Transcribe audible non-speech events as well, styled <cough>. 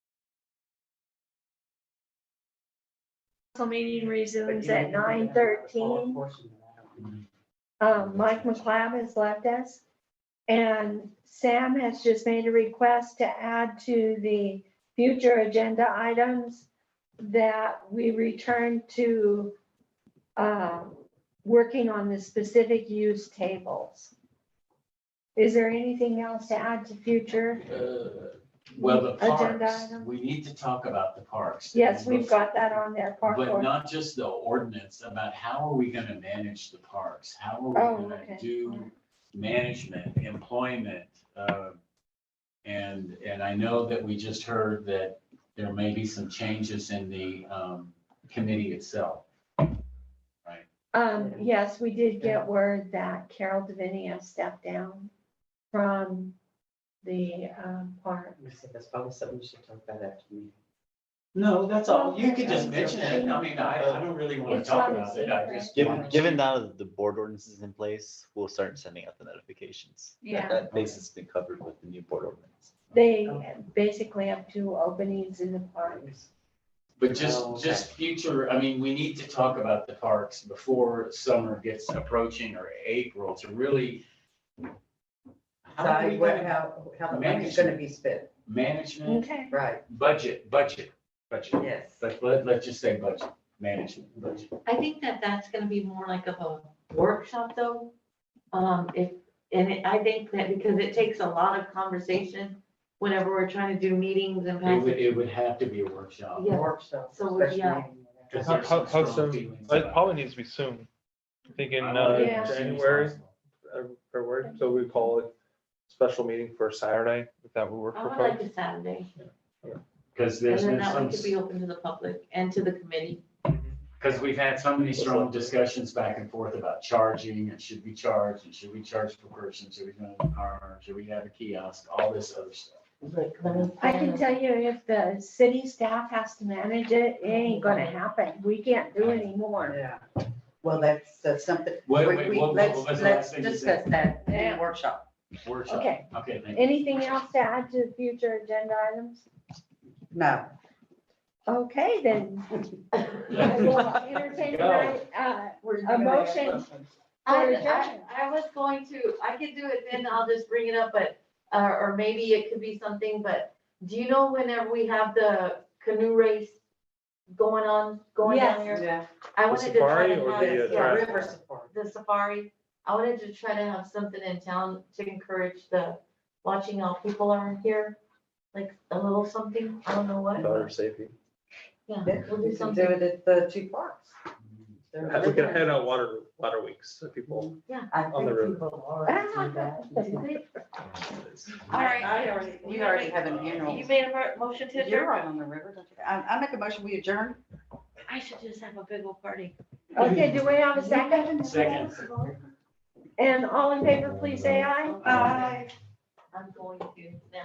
Council meeting resumes at nine thirteen. Um, Mike McLeod has left us. And Sam has just made a request to add to the future agenda items that we return to uh, working on the specific use tables. Is there anything else to add to future? Uh, Well, the Agenda parks, item. we need to talk about the parks. Yes, we've got that on there. park But board. not just the ordinance, about how are we gonna manage the parks? How Oh, are we okay. gonna do management, employment? uh, And, and I know that we just heard that there may be some changes in the um, committee itself. Um, yes, we did get word that Carol Davinia stepped down from the, um, park. I said, That's probably something we should talk about after the meeting. No, that's all. You could just Okay. mention it. I mean, I, I don't really wanna It's talk not a about it. I secret. just. Given, given now the board ordinance is in place, we'll start sending out the notifications. That- Yeah. That base has been covered with the new board ordinance. They basically have two openings in the park. But just, Oh, okay. just future, I mean, we need to talk about the parks before summer gets approaching or April to really. How are we decide what, gonna, how, how the money's gonna be spent, management, Okay. right, budget, budget, budget, yes. let, let, let's just say budget, management, budget. I think that that's gonna be more like of a workshop though. Um, if, and it- I think that because it takes a lot of conversation whenever we're trying to do meetings and It would, passing. it would have to be a workshop. Yeah. Workshop, So we're- special yeah. meeting, whatever. because How, there's how, some how strong soon? feelings It about probably it. Oh, needs to be soon. I think in I want it uh, as Yeah. soon as January, possible. uh, February, so we call it special meeting for Saturday, if that would work I for would like folks. a Saturday, Cause and there's then been that some. one could be open to the public and to the committee. Because we've had so many strong discussions back and forth about charging and should we charge and should we charge per person, should we go in the car, should we have a kiosk, all this other stuff. I can tell you if the city staff has to manage it, it ain't gonna happen. We can't do anymore. Yeah. Well, that's, that's something, Wait, we- wait, we- what- what let's, was the last let's thing you discuss that in Yeah. the workshop. Workshop. Okay. Okay, thank you. Anything else to add to future agenda items? No, Okay, then. I <laughs> will entertain my, uh, a motion. I, for adjournment. I, I was going to, I could do it then, I'll just bring it up, but, uh, or maybe it could be something, but do you know whenever we have the canoe race going on, going down Yes. here? yeah, I The wanted to try safari to or have. the, uh, yeah, track? river support. the safari, I wanted to try to have something in town to encourage the watching how people are here, like a little something, I don't know what. Daughter <laughs> safety. Yeah, Yeah, we'll We do can do something, it at the two parks. They're- Uh, We can head out water, water weeks, so people. I on think the river. people already do <laughs> that. All right. I already, we You already already- have an annual. you made a mo- motion to You're adjourn, right on the river, don't you? I, I make a motion, we adjourn. I should just have a big old party. <laughs> Okay, do we have a second? Second. And all in favor, please say aye. Aye. I'm going to now.